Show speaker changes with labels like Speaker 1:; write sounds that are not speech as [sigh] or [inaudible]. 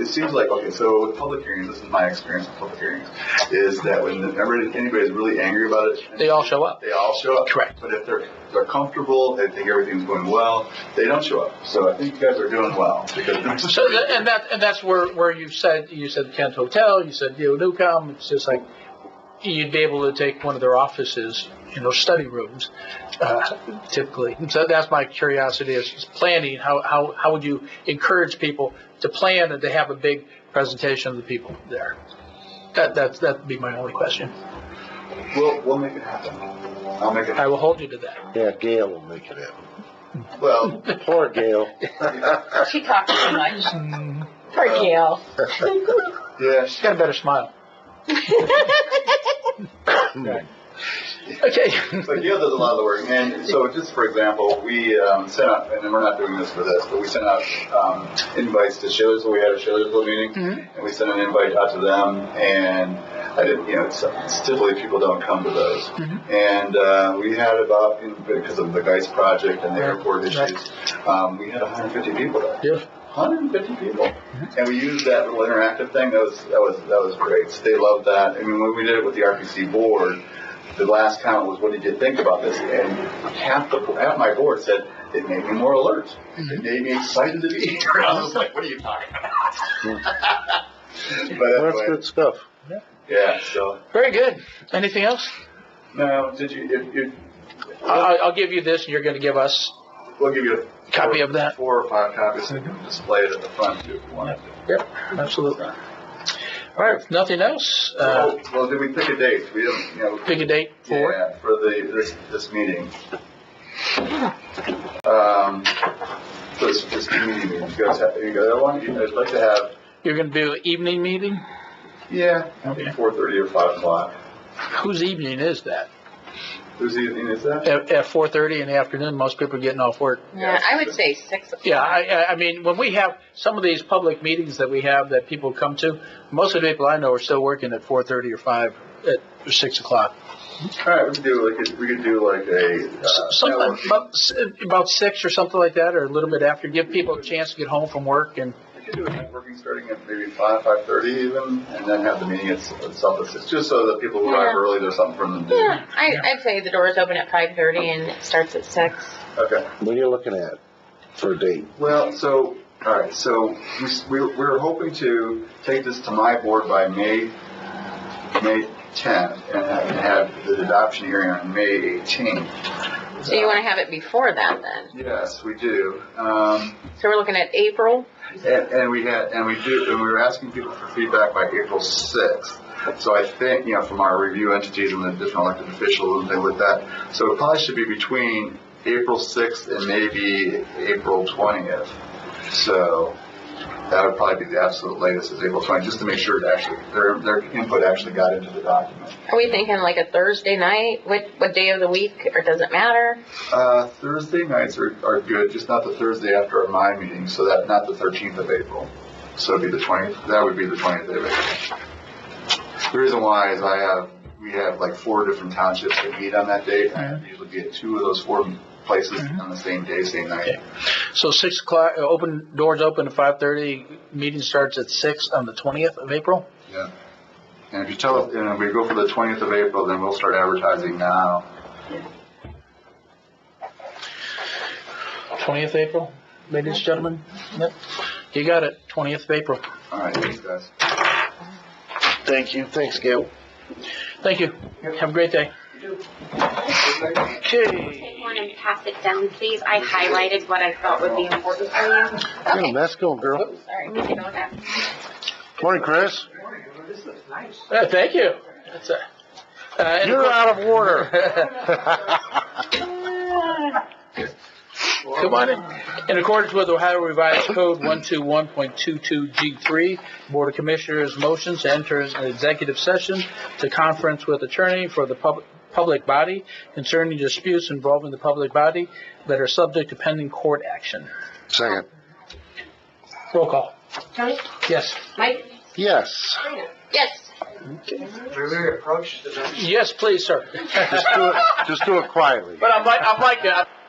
Speaker 1: it seems like, okay, so with public hearings, this is my experience with public hearings, is that when the- whenever anybody's really angry about it.
Speaker 2: They all show up.
Speaker 1: They all show up.
Speaker 2: Correct.
Speaker 1: But if they're, they're comfortable, they think everything's going well, they don't show up. So I think you guys are doing
Speaker 2: [laughs]
Speaker 1: well because.
Speaker 2: So, tha- and that, and that's where, where you said, you said Kent Hotel, you said Neo Newcom, it's just like, you'd be able to take one of their offices, you know, study rooms, uh, typically. And So that's my curiosity is is planning, how, how, how would you encourage people to plan and to have a big presentation of the people there? That, that, that'd be my only question.
Speaker 1: We'll, we'll make it happen. I'll make it,
Speaker 2: I will hold you to that.
Speaker 3: Yeah, Gail will make it happen.
Speaker 2: [laughs]
Speaker 1: well,
Speaker 3: Poor Gail.
Speaker 4: Oh, She talks too much. Poor Gail.
Speaker 1: yeah,
Speaker 2: She's got a better smile. Okay.
Speaker 1: [laughs] So Gail does a lot of the work, and so just for example, we um, sent out, and we're not doing this for this, but we sent out um, invites to Schillersville. We had a Schillersville meeting,
Speaker 2: Mm-hmm.
Speaker 1: and we sent an invite out to them, and I didn't, you know, it's, it's typically people don't come to those,
Speaker 2: Mm-hmm.
Speaker 1: and uh, we had about you know, because of the Geist project and the
Speaker 2: Right,
Speaker 1: airport issues,
Speaker 2: right.
Speaker 1: um, we had 150 people there.
Speaker 2: Yeah.
Speaker 1: 150 people, Mm-hmm. and we used that little interactive thing. That was that was that was great. They loved that. I mean, when we did it with the RPC board, the last comment was, "What did you think about this?" And half the half my board said it made me more alert.
Speaker 2: Mm-hmm.
Speaker 1: It made me excited to be here. [laughs] I was like, "What are you talking about?" [laughs] but
Speaker 3: That's
Speaker 1: anyway,
Speaker 3: good stuff.
Speaker 1: yeah. So
Speaker 2: Very good. Anything else?
Speaker 1: now, did you? If, if,
Speaker 2: I'll, I'll give you this, and you're going to give us.
Speaker 1: we'll give you a
Speaker 2: Copy
Speaker 1: four-
Speaker 2: of that. Mm-hmm.
Speaker 1: Four or five copies, and you can display it at the front too if you want.
Speaker 2: Yep, absolutely. All right, if nothing else, uh,
Speaker 1: oh, well, did we pick a date? We don't, you know.
Speaker 2: pick a date for it.
Speaker 1: Yeah, for the, this, this meeting. Um, this, this community meeting, you guys have, you guys want, you guys like to have,
Speaker 2: You're going to do an evening meeting?
Speaker 1: yeah,
Speaker 2: Okay.
Speaker 1: four thirty or five o'clock.
Speaker 2: Whose evening is that?
Speaker 1: Who's evening is that?
Speaker 2: At, at 4:30 in the afternoon, most people are getting off work.
Speaker 4: Yeah, I would say six. o'clock.
Speaker 2: Yeah, I, I- I mean, when we have some of these public meetings that we have that people come to, most of the people I know are still working at 4:30 or 5, at or 6 o'clock.
Speaker 1: All right, we could do like, a- we could do like a,
Speaker 2: S-
Speaker 1: uh,
Speaker 2: Sometime
Speaker 1: networking.
Speaker 2: about, s- about 6 or something like that, or a little bit after, give people a chance to get home from work and
Speaker 1: We could do a networking starting at maybe five, five thirty even, and then have the meeting at s- itself, at six, just so that people who arrive
Speaker 4: Yeah.
Speaker 1: early, there's something for them to do.
Speaker 4: Yeah, I, I'd say the doors open at five thirty and it starts at six.
Speaker 1: Okay.
Speaker 3: What are you looking at for a date?
Speaker 1: Well, so, all right, so we, s- we we we're hoping to take this to my board by May, May 10th and have, have the adoption hearing on May 18th.
Speaker 4: So you want to have it before that then?
Speaker 1: Yes, we do. Um,
Speaker 4: So we're looking at April.
Speaker 1: and, and we had, and we do, and we were asking people for feedback by April 6th. So I think, you know, from our review entities and the different elected officials and things like that. So it probably should be between April 6th and maybe April 20th. So that would probably be the absolute latest is April 20th, just to make sure it actually, their, their input actually got into the document.
Speaker 4: Are we thinking like a Thursday night? What what day of the week or does it matter?
Speaker 1: Uh, Thursday nights are, are good, just not the Thursday after my meeting, so that, not the 13th of April. So it'd be the 20th, that would be the 20th of April. The reason why is I have, we have like four different townships that meet on that date. and I usually be at two of those four places on the same day, same night.
Speaker 2: So six o'clock, uh, open, doors open at five thirty, meeting starts at six on the twentieth of April?
Speaker 1: Yeah. And if you tell, and if we go for the 20th of April, then we'll start advertising now.
Speaker 2: Twentieth of April, ladies and gentlemen? Yep. You got it, twentieth of April.
Speaker 1: All right, thanks, guys.
Speaker 3: Thank you. Thanks, Gail.
Speaker 2: Thank you. Have a great day. Okay.
Speaker 5: Take one and pass it down, please. I highlighted what I thought would be important for you.
Speaker 3: Yeah, that's going, girl.
Speaker 4: Oops, sorry.
Speaker 5: You can go now.
Speaker 3: Morning, Chris.
Speaker 2: Uh, Thank you. That's, uh, uh, and of
Speaker 3: You're
Speaker 2: course-
Speaker 3: out of order. [laughs]
Speaker 2: Come on in. In accordance with Ohio Revised Code 121.22G3, Board of Commissioners motions to enter an executive session to conference with attorney for the pub- public body concerning disputes involving the public body that are subject to pending court action.
Speaker 3: Second.
Speaker 2: Roll call.
Speaker 5: Tony,
Speaker 2: Yes.
Speaker 5: Mike,
Speaker 3: Yes.
Speaker 5: Sabrina.
Speaker 4: Yes.
Speaker 2: Yes, please, sir.
Speaker 3: Just do it, just do it quietly.
Speaker 2: But I'm like, I'm like that.